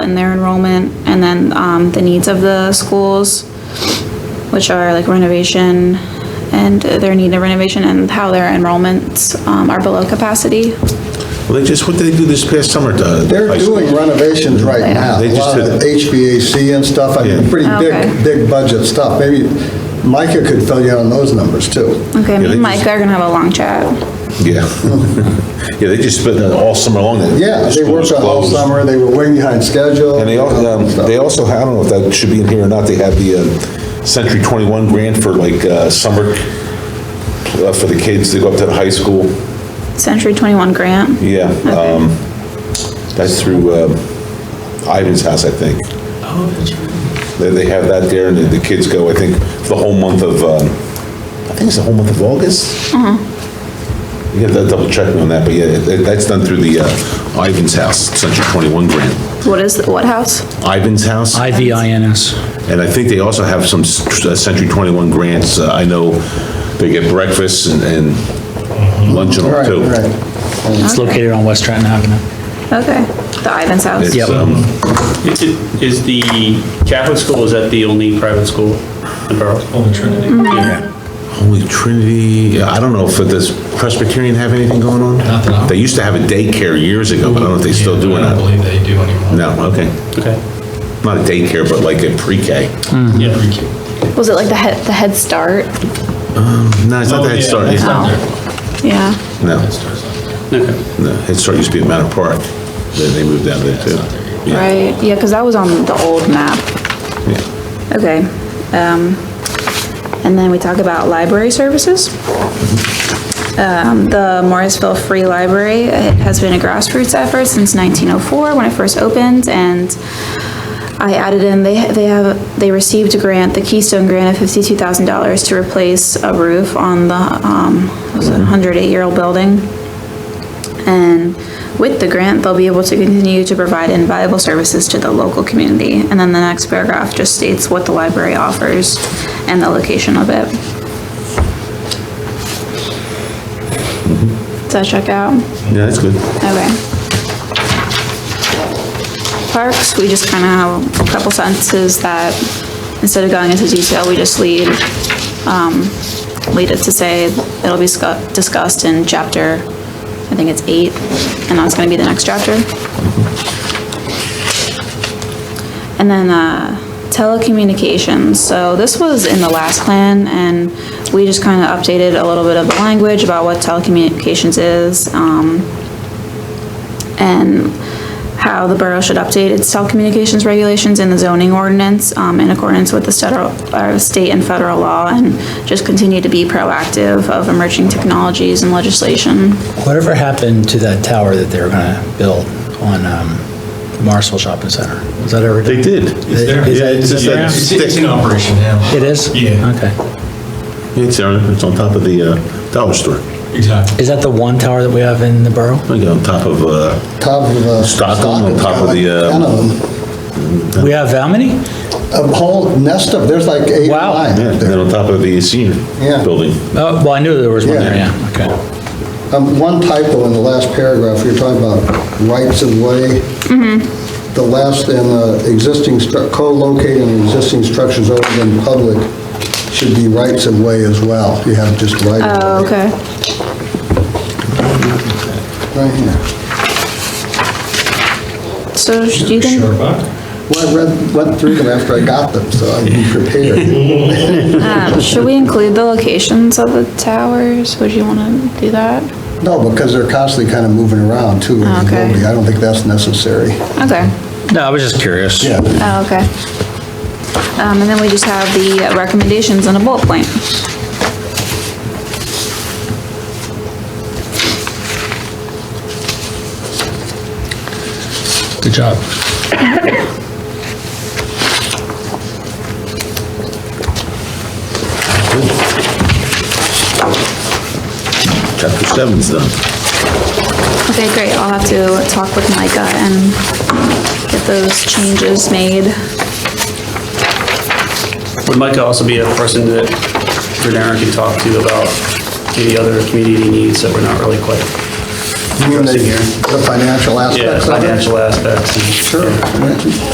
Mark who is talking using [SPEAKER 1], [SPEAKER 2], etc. [SPEAKER 1] and their enrollment, and then, um, the needs of the schools, which are like renovation and their need of renovation and how their enrollments, um, are below capacity.
[SPEAKER 2] Well, they just, what did they do this past summer to?
[SPEAKER 3] They're
[SPEAKER 2] high school?
[SPEAKER 3] doing renovations right
[SPEAKER 1] They
[SPEAKER 3] now.
[SPEAKER 1] are.
[SPEAKER 3] A
[SPEAKER 2] They just
[SPEAKER 3] lot
[SPEAKER 2] did-
[SPEAKER 3] of the HVAC and stuff, I mean,
[SPEAKER 2] Yeah.
[SPEAKER 3] pretty
[SPEAKER 1] Okay.
[SPEAKER 3] big, big budget stuff. Maybe Micah could fill you in on those numbers too.
[SPEAKER 1] Okay, me
[SPEAKER 2] they
[SPEAKER 1] and
[SPEAKER 2] just-
[SPEAKER 1] Mike are gonna have a long chat.
[SPEAKER 2] Yeah. Yeah, they just spent all summer long. that
[SPEAKER 3] Yeah, they
[SPEAKER 2] school was
[SPEAKER 3] worked on all
[SPEAKER 2] closed.
[SPEAKER 3] summer, they were way behind schedule.
[SPEAKER 2] And they also, um,
[SPEAKER 3] stuff.
[SPEAKER 2] they also, I don't know if that should be in here or not, they have the uh, Century 21 grant for like uh, summer, uh, for the kids to go up to the high school.
[SPEAKER 1] Century 21 grant.
[SPEAKER 2] Yeah, um, that's through um, Ivan's house, I think. They, they have that there, and the the kids go, I think, the whole month of, um, I think it's the whole month of August? You gotta double check me on that, but yeah, that- that's done through the uh, Ivan's house, Century 21 grant.
[SPEAKER 1] What is, what house?
[SPEAKER 2] Ivan's house?
[SPEAKER 4] IVINS.
[SPEAKER 2] And I think they also have some s- uh, Century 21 grants. Uh, I know they get breakfast and- and lunch and all
[SPEAKER 3] Right,
[SPEAKER 2] too.
[SPEAKER 3] right.
[SPEAKER 4] It's located on West Trenton Avenue.
[SPEAKER 1] Okay, the Ivan's house.
[SPEAKER 2] It's,
[SPEAKER 4] Yep.
[SPEAKER 2] um,
[SPEAKER 5] Is it- is the Catholic school, is that the only private school in Berlin? Only Trinity.
[SPEAKER 2] Holy Trinity, yeah, I don't know if does Presbyterian have anything going on?
[SPEAKER 6] Not that I-
[SPEAKER 2] They used to have a daycare years ago, but I don't know if they still do or
[SPEAKER 6] I don't
[SPEAKER 2] not.
[SPEAKER 6] believe they do anymore.
[SPEAKER 2] No, okay.
[SPEAKER 5] Okay,
[SPEAKER 2] Not a daycare, but like a pre-K.
[SPEAKER 5] yeah.
[SPEAKER 1] Was it like the head, the Head Start?
[SPEAKER 2] No, it's not the Head Start.
[SPEAKER 6] It's not there.
[SPEAKER 1] Yeah.
[SPEAKER 2] No,
[SPEAKER 6] Head Start's not there.
[SPEAKER 2] no, Head Start used to be at Manor Park. Then they moved down there too. Yeah,
[SPEAKER 1] Right, yeah, because that was on the old map.
[SPEAKER 2] yeah.
[SPEAKER 1] Okay. um, And then we talk about library services. Um, The Morrisville Free Library it has been a grassroots effort since 1904, when it first opened, and I added in, they they have, they received a grant, the Keystone Grant of $52,000 to replace a roof on the, um, what was it 108-year-old building. And with the grant, they'll be able to continue to provide invaluable services to the local community. And then the next paragraph just states what the library offers and the location of it. Does that check out?
[SPEAKER 2] Yeah, that's good.
[SPEAKER 1] Okay. Parks, we just kind of have a couple sentences that, instead of going into detail, we just lead, um, lead it to say it'll be scu- discussed in chapter, I think it's eight, and that's gonna be the next chapter. And then, uh, telecommunications, so this was in the last plan, and we just kind of updated a little bit of the language about what telecommunications is, um, and how the borough should update its telecommunications regulations in the zoning ordinance um, in accordance with the federal, or state and federal law, and just continue to be proactive of emerging technologies and legislation.
[SPEAKER 4] Whatever happened to that tower that they were gonna build on um, Marsville Shopping Center? Was that ever?
[SPEAKER 2] They did.
[SPEAKER 4] Is there- is
[SPEAKER 2] Yeah,
[SPEAKER 4] that-
[SPEAKER 2] it's just
[SPEAKER 6] Yeah,
[SPEAKER 2] that
[SPEAKER 6] It's it's
[SPEAKER 2] stick.
[SPEAKER 6] in operation now.
[SPEAKER 4] It is?
[SPEAKER 6] Yeah.
[SPEAKER 4] Okay.
[SPEAKER 2] It's there, it's on top of the uh, Dollar Store.
[SPEAKER 6] Exactly.
[SPEAKER 4] Is that the one tower that we have in the borough?
[SPEAKER 2] Like on top of, uh,
[SPEAKER 3] Top of the.
[SPEAKER 2] Stockholm on top of the, uh,
[SPEAKER 3] Ten of them.
[SPEAKER 4] We have how many?
[SPEAKER 3] A whole nest of, there's like eight or
[SPEAKER 4] Wow.
[SPEAKER 3] nine.
[SPEAKER 2] yeah, and then on top of the senior
[SPEAKER 3] Yeah.
[SPEAKER 2] building.
[SPEAKER 4] Oh, well, I knew there was one there,
[SPEAKER 3] Yeah.
[SPEAKER 4] yeah, okay.
[SPEAKER 3] Um, One typo in the last paragraph, you're talking about rights of way.
[SPEAKER 1] Mm-hmm.
[SPEAKER 3] The last, and uh, existing, stru- co-locating existing structures open in public should be rights of way as well. You have just right
[SPEAKER 1] Oh,
[SPEAKER 3] of way.
[SPEAKER 1] okay.
[SPEAKER 3] Right here.
[SPEAKER 1] So sh- do you think,
[SPEAKER 6] Sure about?
[SPEAKER 3] Well, I read, went through them after I got them, so I'm prepared.
[SPEAKER 1] um, should we include the locations of the towers? Would you want to do that?
[SPEAKER 3] No, because they're constantly kind of moving around too in the
[SPEAKER 1] Okay.
[SPEAKER 3] building. I don't think that's necessary.
[SPEAKER 1] Okay,
[SPEAKER 4] No, I was just curious.
[SPEAKER 1] oh, okay. Um, And then we just have the recommendations in a bullet point.
[SPEAKER 4] Good job.
[SPEAKER 2] Chapter seven's done.
[SPEAKER 1] Okay, great, I'll have to talk with Micah and get those changes made.
[SPEAKER 5] Would Micah also be a person that Renera can talk to about any other community needs that we're not really quite
[SPEAKER 3] You mean the
[SPEAKER 5] Addressing here.
[SPEAKER 3] the financial
[SPEAKER 5] Yeah,
[SPEAKER 3] aspects of it?
[SPEAKER 5] financial aspects. and-
[SPEAKER 3] Sure.